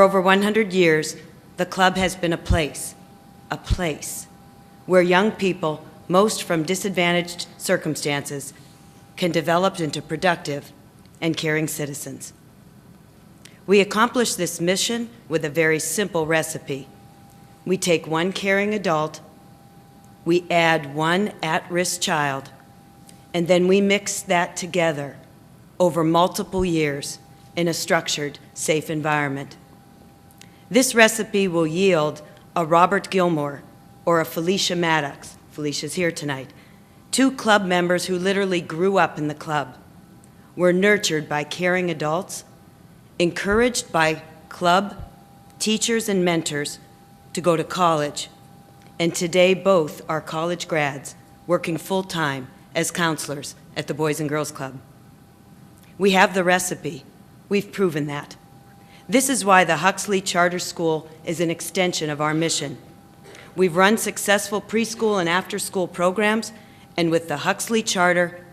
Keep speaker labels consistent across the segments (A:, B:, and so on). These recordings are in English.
A: For over 100 years, the club has been a place, a place where young people, most from disadvantaged circumstances, can develop into productive and caring citizens. We accomplish this mission with a very simple recipe. We take one caring adult, we add one at risk child, and then we mix that together over multiple years in a structured, safe environment. This recipe will yield a Robert Gilmore or a Felicia Maddox, Felicia's here tonight, two club members who literally grew up in the club, were nurtured by caring adults, encouraged by club, teachers, and mentors to go to college, and today both are college grads working full time as counselors at the Boys and Girls Club. We have the recipe, we've proven that. This is why the Huxley Charter School is an extension of our mission. We've run successful preschool and after school programs, and with the Huxley Charter,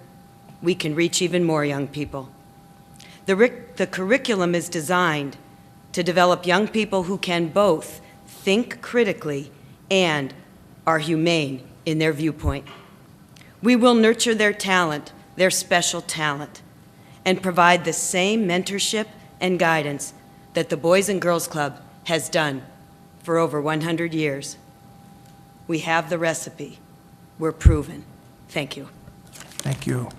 A: we can reach even more young people. The, ric- the curriculum is designed to develop young people who can both think critically and are humane in their viewpoint. We will nurture their talent, their special talent, and provide the same mentorship and guidance that the Boys and Girls Club has done for over 100 years. We have the recipe. We're proven. Thank you.
B: Thank you.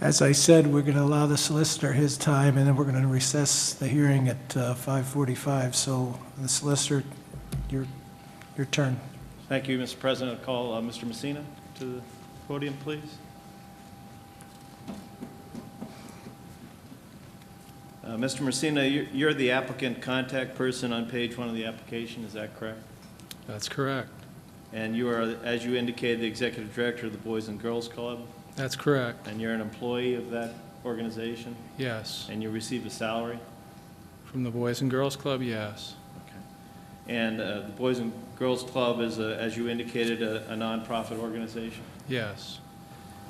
B: As I said, we're going to allow the solicitor his time, and then we're going to recess the hearing at uh, 5:45. So the solicitor, your, your turn.
C: Thank you, Mr. President. I'll Call uh, Mr. Messina to the podium, please. Uh, Mr. Messina, you're- you're the applicant contact person on page one of the application, is that correct?
D: That's correct.
C: And you are, as you indicated, the executive director of the Boys and Girls Club,
D: That's correct.
C: and you're an employee of that organization,
D: Yes.
C: and you receive a salary?
D: From the Boys and Girls Club, yes.
C: And uh, the Boys and Girls Club is, a- as you indicated, a a nonprofit organization?
D: Yes.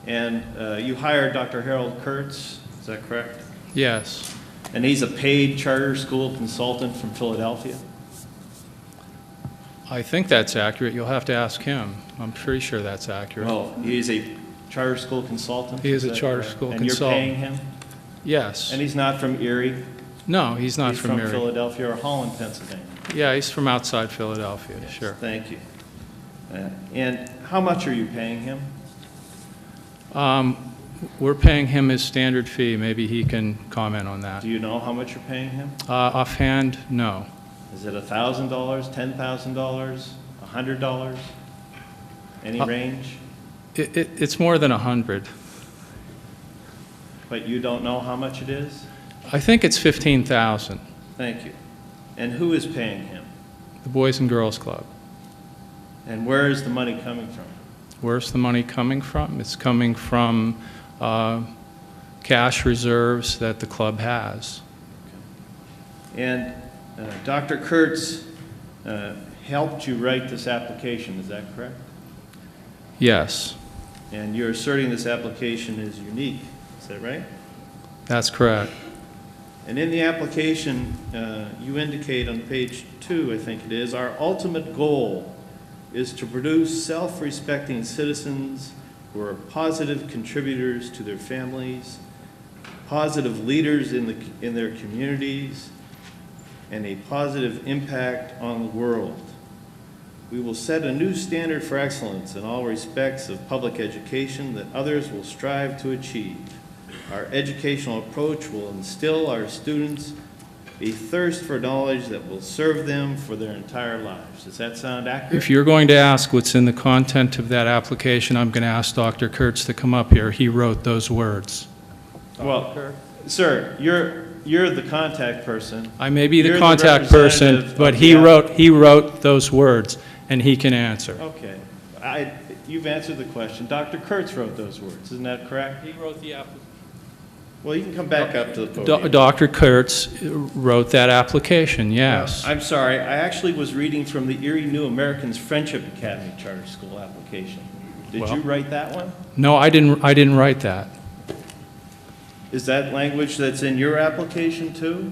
C: And uh, you hired Dr. Harold Kurtz, is that correct?
D: Yes.
C: And he's a paid charter school consultant from Philadelphia.
D: I think that's accurate. You'll have to ask him. I'm pretty sure that's accurate.
C: Well, he's Oh, a charter school consultant?
D: He is a
C: that
D: charter
C: correct?
D: school
C: And you're
D: consultant.
C: paying him?
D: Yes.
C: And he's not from Erie?
D: No, he's not from
C: He's from
D: Erie.
C: Philadelphia or Holland, Pennsylvania?
D: Yeah, he's from outside Philadelphia,
C: Yes,
D: sure.
C: Thank you. Uh, And how much are you paying him?
D: Um, We're paying him his standard fee. Maybe he can comment on that.
C: Do you know how much you're paying him?
D: Uh, Offhand, no.
C: Is it $1,000, $10,000, $100? Any
D: Uh,
C: range?
D: It- it- It's more than a 100.
C: But you don't know how much it is?
D: I think it's 15,000,
C: Thank you. And who is paying him?
D: the Boys and Girls Club.
C: And where is the money coming from?
D: Where's the money coming from? It's coming from uh, cash reserves that the club has.
C: And uh, Dr. Kurtz uh, helped you write this application, is that correct?
D: Yes,
C: And you're asserting this application is unique, is that right?
D: that's correct.
C: And in the application, uh, you indicate on page two, I think it is, our ultimate goal is to produce self-respecting citizens who are positive contributors to their families, positive leaders in the, in their communities, and a positive impact on the world. We will set a new standard for excellence in all respects of public education that others will strive to achieve. Our educational approach will instill our students a thirst for knowledge that will serve them for their entire lives. Does that sound
D: If
C: accurate?
D: you're going to ask what's in the content of that application, I'm going to ask Dr. Kurtz to come up here. He wrote those words.
C: Well, sir, you're, you're the contact person.
D: I may be
C: You're
D: the
C: the
D: contact
C: representative
D: person,
C: of
D: but
C: the
D: he
C: app-
D: wrote, he wrote those words, and he can answer.
C: Okay. I, you've answered the question. Dr. Kurtz wrote those words, isn't that correct?
D: He wrote the application.
C: Well, you can come back up to the podium.
D: Dr. Kurtz wrote that application, yes.
C: I'm sorry, I actually was reading from the Erie New Americans Friendship Academy Charter School application. Did
D: Well-
C: you write that one?
D: No, I didn't, I didn't write that.
C: Is that language that's in your application too?